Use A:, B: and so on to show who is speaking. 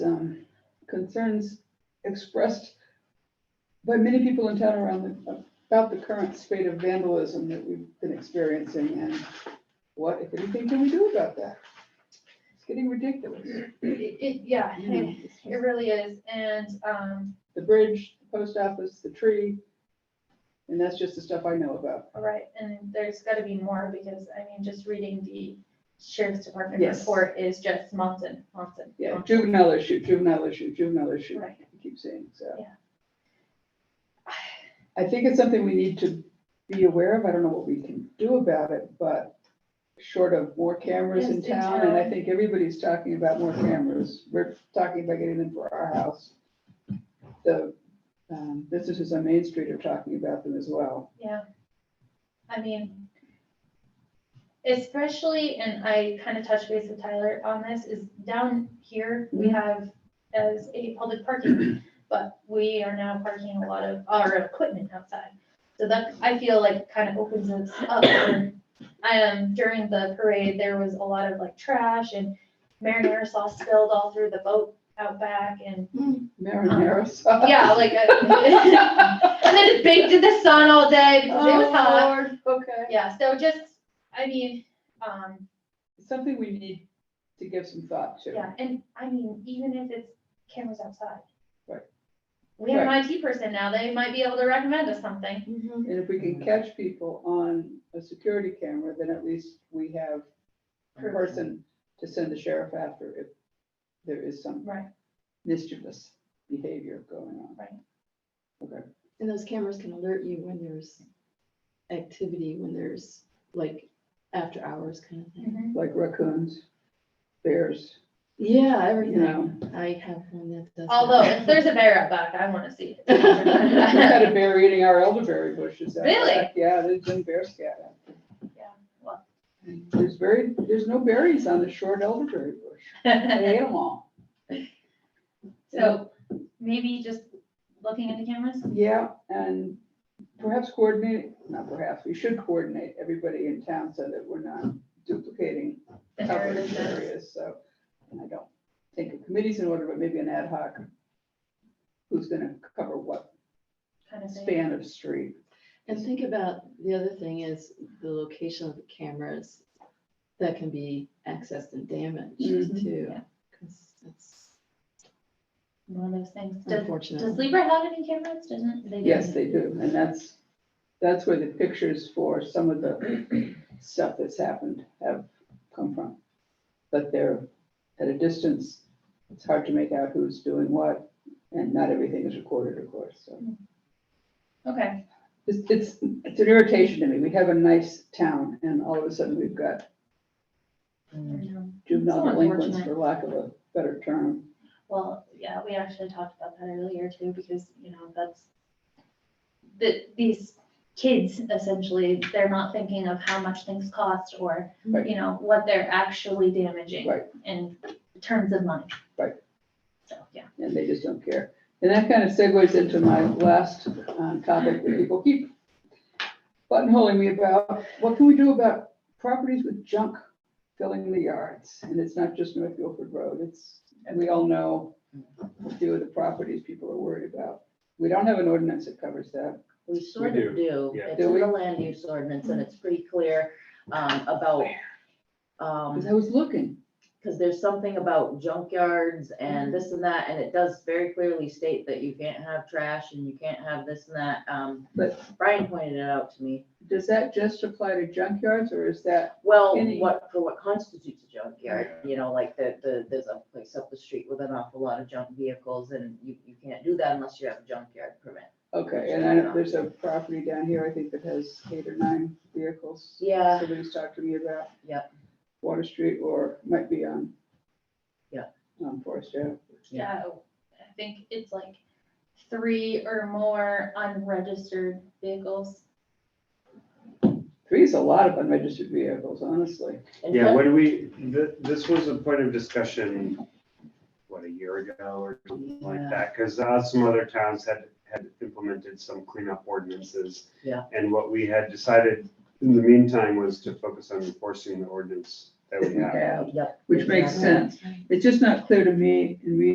A: um, concerns expressed by many people in town around, the- about the current state of vandalism that we've been experiencing and what, if anything, can we do about that? It's getting ridiculous.
B: It, it, yeah,
A: You know,
B: it
A: it's
B: it
A: just
B: really is, and, um,
A: The bridge, the post office, the tree, and that's just the stuff I know about.
B: all right, and there's gotta be more, because, I mean, just reading the sheriff's department
A: Yes.
B: report is just mountain, mountain.
A: Yeah,
B: mountain.
A: juvenile issue, juvenile issue, juvenile issue,
B: Oh. Right.
A: I keep saying, so.
B: Yeah.
A: I think it's something we need to be aware of, I don't know what we can do about it, but short of more cameras in
B: Yes, in
A: town, and I
B: town.
A: think everybody's talking about more cameras, we're talking about getting them for our house. The um, businesses on Main Street are talking about them as well.
B: Yeah. I mean, especially, and I kind of touched base with Tyler on this, is down here, we
A: Mhm.
B: have as a public parking, but we are now parking a lot of our equipment outside. So that, I feel like kind of opens us up. for- Um, during the parade, there was a lot of like trash and marinara sauce spilled all through the boat out back and,
A: Marinara sauce.
B: Uh-huh. yeah, like. I- And then it baked in the sun all day because it was hot.
A: Oh, Lord, Okay.
B: Yeah, so just, I mean, um,
A: something we need to give some thought to.
B: yeah, and I mean, even if it's cameras outside.
A: Right.
B: We have an IT person now, they might be able to recommend us something.
A: And if we
B: Mm.
A: can catch people on a security camera, then at least we have a
B: Proof.
A: person to send the sheriff after if there is some
B: Right.
A: mischievous behavior going on.
C: And those cameras can alert you when there's activity, when there's like after hours kind of thing.
A: Like raccoons, bears,
C: Yeah,
A: you
C: everything.
A: know.
C: I have one that does. that.
B: Although, if there's a bear out back, I wanna see
A: We had a
B: it.
A: bear eating our elderberry bushes. out
B: Really?
A: back. Yeah, there's been bear scat. out there.
B: Yeah, well.
A: And There's very, there's no berries on the short elderberry bush. They ate them all.
B: So maybe just looking at the cameras,
A: Yeah, and perhaps coordinate, not perhaps, we should coordinate everybody in town so that we're not duplicating
B: the
A: coverage
B: areas.
A: areas, so. And I don't think a committee's in order, but maybe an ad hoc. Who's gonna cover what
B: kind of thing.
A: span of street?
C: And think about, the other thing is the location of the cameras that can be accessed and damaged
A: Mhm.
C: too.
B: Mm-hmm. Yeah.
C: 'cause that's
B: One of those things. Does, does
C: unfortunate.
B: Libra have any cameras? Doesn't, they do?
A: Yes, they do, and that's, that's where the pictures for some of the stuff that's happened have come from. But they're at a distance, it's hard to make out who's doing what, and not everything is recorded, of course, so.
B: Okay,
A: It's, it's, it's an irritation to me. We have a nice town and all of a sudden we've got juvenile
B: So
A: delinquents,
B: unfortunate.
A: for lack of a better term.
B: Well, yeah, we actually talked about that earlier too, because, you know, that's, the, these kids essentially, they're not thinking of how much things cost or,
A: Right.
B: you know, what they're actually damaging
A: Right.
B: in terms of money.
A: Right.
B: So, yeah.
A: And they just don't care. And that kind of segues into my last um, topic that people keep buttonholing me about. What can we do about properties with junk filling the yards? And it's not just North Guilford Road, it's, and we all know a few of the properties people are worried about. We don't have an ordinance that covers that.
D: We sort
E: We
D: of do.
E: yeah.
D: It's
A: Do
D: in the
A: we?
D: land use ordinance and it's pretty clear um, about,
A: Because
D: um,
A: I was looking,
D: because there's something about junkyards
A: Mm-hmm.
D: and this and that, and it does very clearly state that you can't have trash and you can't have this and that. Um,
A: But-
D: Brian pointed it out to me.
A: does that just apply to junkyards or is that
D: Well,
A: Any-
D: what, for what constitutes a junkyard, you know, like the, the, there's a place up the street with an awful lot of junk vehicles and you, you can't do that unless you have a junkyard permit.
A: Okay, and I, know there's a property down here, I think that has eight or nine vehicles.
D: Yeah.
A: Somebody's talked to me about.
D: Yep.
A: Water Street or might be on.
D: Yep.
A: On Forest Ave.
B: Yeah, I think it's like three or more unregistered vehicles.
A: Three is a lot of unregistered vehicles, honestly.
D: And
E: Yeah,
D: so-
E: when we, th- this was a point of discussion, what, a year ago or something
D: Yeah.
E: like that? Because some other towns had, had implemented some cleanup ordinances.
D: Yeah.
E: And what we had decided in the meantime was to focus on enforcing the ordinance that we have.
A: Yeah,
D: Yep.
A: Which makes sense. It's just not clear to me in reading